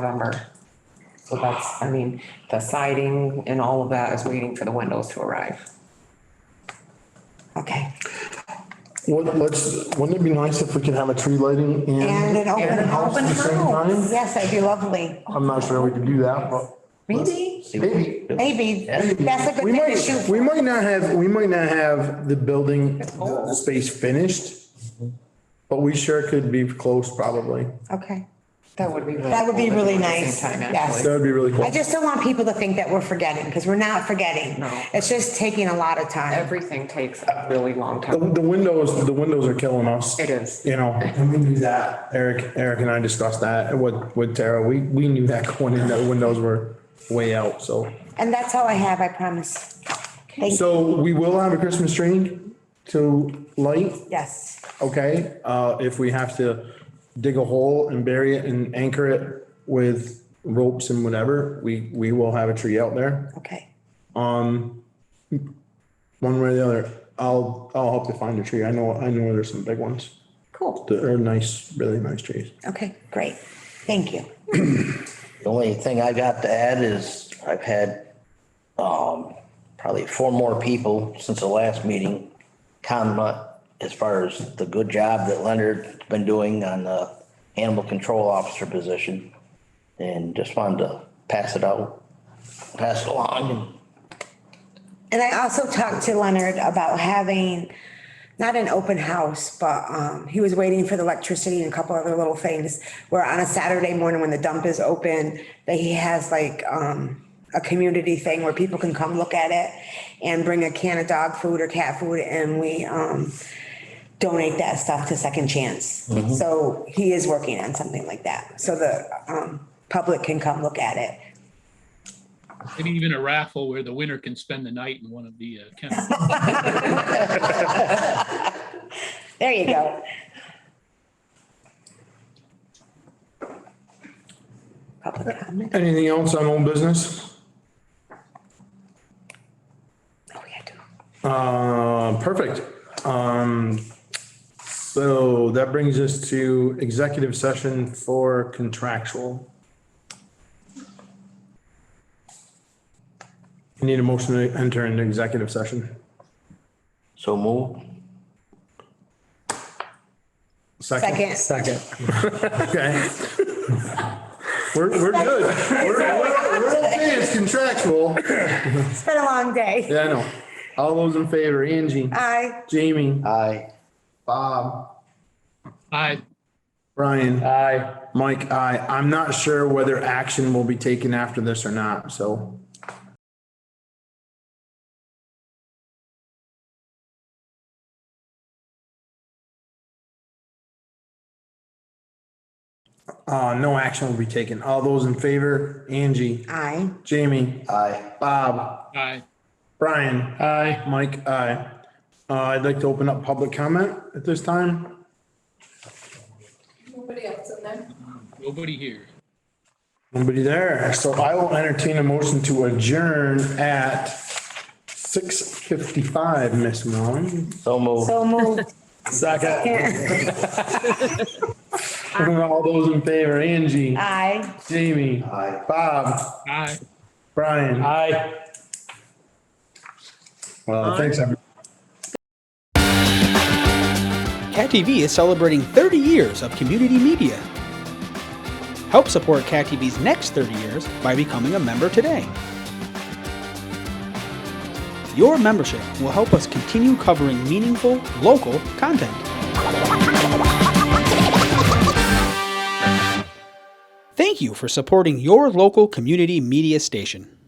November. So that's, I mean, the siding and all of that is waiting for the windows to arrive. Okay, What, let's, wouldn't it be nice if we could have a tree lighting And and, an open house at the same time? house. Yes, that'd be lovely. I'm not sure we could do that, but maybe, maybe. Maybe that's a good We thing to might, shoot. we for. might not have, we might not have the building, the space finished, but we sure could be close probably. Okay. that would be. really That would be cool to do really at the nice. same time, Yes. actually. That would be really cool. I just don't want people to think that we're forgetting because we're not forgetting. No. It's just taking a lot of time. Everything takes a really long The, time. the windows, the windows are killing us. It is. You know, and we knew that. Eric, Eric and I discussed that with, with Tara. We, we knew that going in, that windows were way out, so. And that's all I have, I promise. Thank you. So we will have a Christmas tree to light, Yes. okay? Uh, if we have to dig a hole and bury it and anchor it with ropes and whatever, we, we will have a tree out there, Okay. one way or the other. I'll, I'll help you find a tree. I know, I know there's some big ones. Cool. that are nice, really nice trees. Okay, great. Thank you. The only thing I got to add is I've had, um, probably four more people since the last meeting comment as far as the good job that Leonard's been doing on the animal control officer position. And just wanted to pass it out, pass it along. And I also talked to Leonard about having, not an open house, but um, he was waiting for the electricity and a couple other little things. Where on a Saturday morning when the dump is open, that he has like um, a community thing where people can come look at it and bring a can of dog food or cat food and we um, donate that stuff to Second Chance. So he is working on something like that, so the um, public can come look at it. Maybe even a raffle where the winner can spend the night in one of the uh, kennels. There you go. Public comment? Anything else on old business? Oh, yeah, do. Uh, perfect. Um, so that brings us to executive session for contractual. Need a motion to enter into executive session. So move. Second. Second. Okay. We're, we're good. We're, we're, we're okay. It's contractual. It's been a long day. Yeah, I know. All those in favor, Angie, Aye. Jamie, Aye. Bob. Aye, Brian. Aye. Mike, aye. I'm not sure whether action will be taken after this or not, so. Uh, no action will be taken. All those in favor, Angie, Aye. Jamie, Aye. Bob, aye. Brian. Aye. Mike, aye. Uh, I'd like to open up public comment at this time. Nobody else in there? Nobody here. Nobody there, so I will entertain a motion to adjourn at six fifty-five, Miss Malone. So move. So moved. Second. All those in favor, Angie, Aye. Jamie, Aye. Bob, Aye. Brian. Aye. Well, thanks, everyone. Cat TV is celebrating 30 years of community media. Help support Cat TV's next 30 years by becoming a member today. Your membership will help us continue covering meaningful, local content. Thank you for supporting your local community media station.